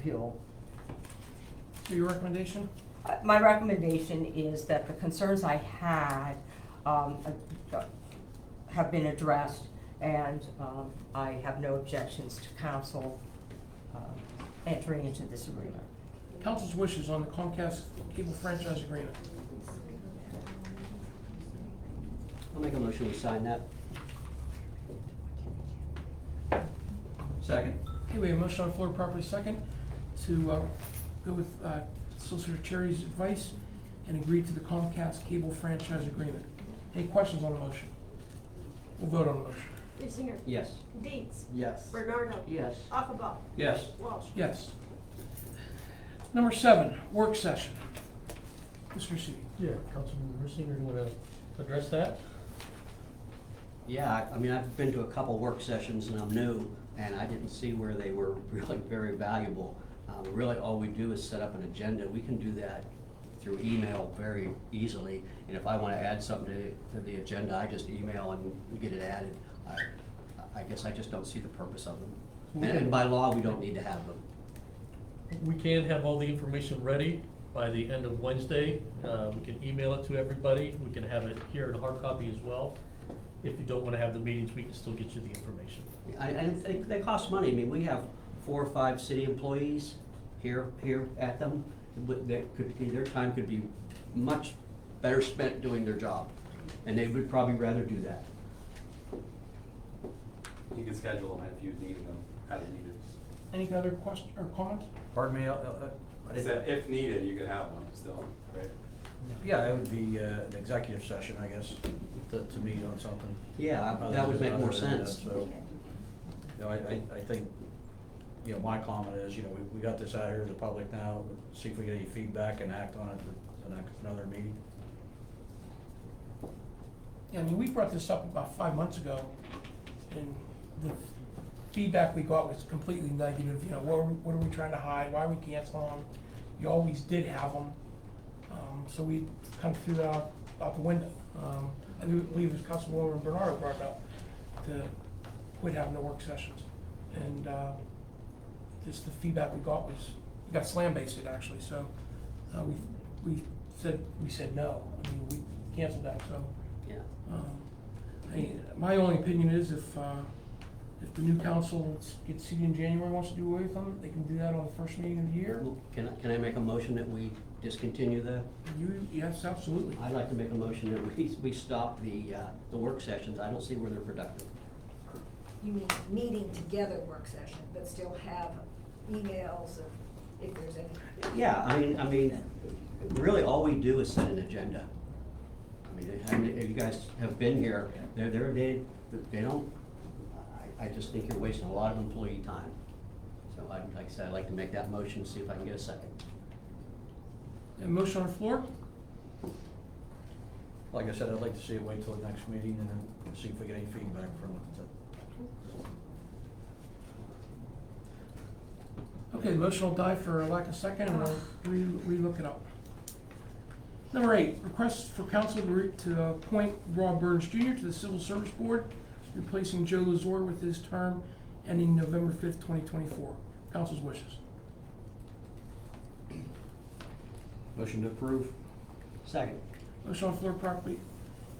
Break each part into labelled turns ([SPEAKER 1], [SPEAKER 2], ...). [SPEAKER 1] appeal. So your recommendation?
[SPEAKER 2] Uh, My recommendation is that the concerns I had um, uh, have been addressed, and um, I have no objections to council um, entering into this agreement.
[SPEAKER 1] Council's wishes on the Comcast cable franchise agreement.
[SPEAKER 3] I'll make a motion, we sign that.
[SPEAKER 4] Second.
[SPEAKER 1] Okay, we have a motion on the floor, property second, to uh, go with uh, Solicitor Cherry's advice and agree to the Comcast cable franchise agreement. Any questions on the motion? We'll vote on the motion.
[SPEAKER 5] Dusinger,
[SPEAKER 3] Yes.
[SPEAKER 5] Deeds,
[SPEAKER 4] Yes.
[SPEAKER 5] Bernardo,
[SPEAKER 3] Yes.
[SPEAKER 5] Akaba,
[SPEAKER 4] Yes.
[SPEAKER 5] Walsh.
[SPEAKER 1] Yes. Number seven, work session. Mr. Seavey.
[SPEAKER 6] Yeah, Councilmember Singer, you wanna address that?
[SPEAKER 3] Yeah, I- I mean, I've been to a couple work sessions and I'm new, and I didn't see where they were really very valuable. Um, Really, all we do is set up an agenda. We can do that through email very easily. And if I want to add something to- to the agenda, I just email and get it added. I- I guess I just don't see the purpose of them. And- And by law, we don't need to have them.
[SPEAKER 6] We can have all the information ready by the end of Wednesday. Uh, we can email it to everybody. We can have it here in hard copy as well. If you don't wanna have the meetings, we can still get you the information.
[SPEAKER 3] I- And they- they cost money. I mean, we have four or five city employees here, here at them. But that could be, their time could be much better spent doing their job. And they would probably rather do that.
[SPEAKER 7] You can schedule them if you need them, as needed.
[SPEAKER 1] Any other question or comment?
[SPEAKER 8] Pardon me, uh, uh, I
[SPEAKER 7] Is
[SPEAKER 8] didn't-
[SPEAKER 7] that if needed, you can have one still, right?
[SPEAKER 8] yeah, it would be uh, an executive session, I guess, to, to meet on something. Uh,
[SPEAKER 3] Yeah, I- that would make more
[SPEAKER 8] Other than that,
[SPEAKER 3] sense.
[SPEAKER 8] So, you know, I, I, I think, you know, my comment is, you know, we, we got this out here to the public now, see if we get any feedback and act on it at the next, another meeting.
[SPEAKER 1] Yeah, I mean, we brought this up about five months ago, and the feedback we got was completely negative, you know, what are, we- what are we trying to hide, why are we canceling them? You always did have them, um, so we kind of threw that out, out the window. Um, I do believe it was Councilwoman Bernardo brought it up, to quit having the work sessions. And, uh, just the feedback we got was, we got slam basted actually, so, uh, we, we said, we said no, I mean, we canceled that, so.
[SPEAKER 3] Yeah.
[SPEAKER 1] Um, I- My only opinion is if, uh, if the new council gets seated in January, wants to do away with them, they can do that on the first meeting of the year.
[SPEAKER 3] Can I, can I make a motion that we discontinue the?
[SPEAKER 1] You, yes, absolutely.
[SPEAKER 3] I'd like to make a motion that we, we stop the, uh, the work sessions. I don't see where they're productive.
[SPEAKER 9] you mean meeting together work session, but still have emails of, if there's any.
[SPEAKER 3] Yeah, I mean, I mean, really, all we do is set an agenda. I mean, I mean, if you guys have been here, they're, they're, they, they don't, I, I just think you're wasting a lot of employee time. So I, like I said, I'd like to make that motion, see if I can get a second.
[SPEAKER 1] A motion on the floor?
[SPEAKER 8] Like I said, I'd like to see it wait till the next meeting and then see if we get any feedback from it.
[SPEAKER 1] Okay, the motion will die for lack of second, and I'll re, relook it up. Number eight, request for council to re- to appoint Rob Burns Jr. to the Civil Service Board, replacing Joe Lazar with his term ending November fifth, twenty twenty-four. Council's wishes.
[SPEAKER 8] Motion to approve?
[SPEAKER 3] Second.
[SPEAKER 1] Motion on the floor properly,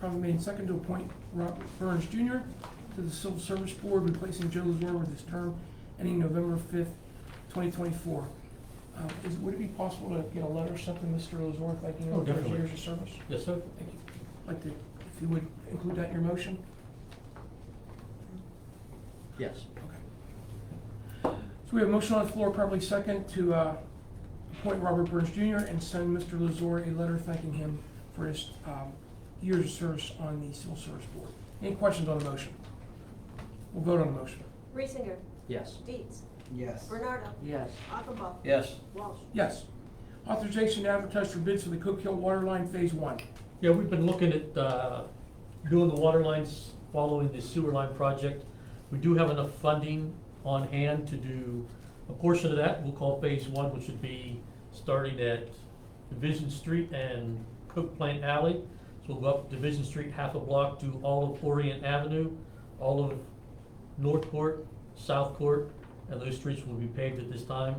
[SPEAKER 1] properly made and second to appoint Robert Burns Jr. to the Civil Service Board, replacing Joe Lazar with his term ending November fifth, twenty twenty-four. Uh, is, would it be possible to get a letter sent to Mr. Lazar thanking
[SPEAKER 6] Oh,
[SPEAKER 1] him for his
[SPEAKER 6] definitely.
[SPEAKER 1] years of service?
[SPEAKER 6] Yes, sir?
[SPEAKER 1] Thank you. Like to, if you would include that in your motion?
[SPEAKER 3] Yes.
[SPEAKER 1] So we have a motion on the floor, properly second, to, uh, appoint Robert Burns Jr. and send Mr. Lazar a letter thanking him for his, um, years of service on the Civil Service Board. Any questions on the motion? We'll vote on the motion.
[SPEAKER 5] Reesinger,
[SPEAKER 3] Yes.
[SPEAKER 5] Deeds,
[SPEAKER 4] Yes.
[SPEAKER 5] Bernardo,
[SPEAKER 3] Yes.
[SPEAKER 5] Akaba,
[SPEAKER 8] Yes.
[SPEAKER 5] Walsh.
[SPEAKER 1] Yes. Authorization to advertise for bids for the Cook Hill Water Line Phase One.
[SPEAKER 6] Yeah, we've been looking at, uh, doing the water lines following the sewer line project. We do have enough funding on hand to do a portion of that. We'll call phase one, which would be starting at Division Street and Cook Plant Alley. So we'll go up Division Street half a block, do all of Orient Avenue, all of North Court, South Court, and those streets will be paved at this time.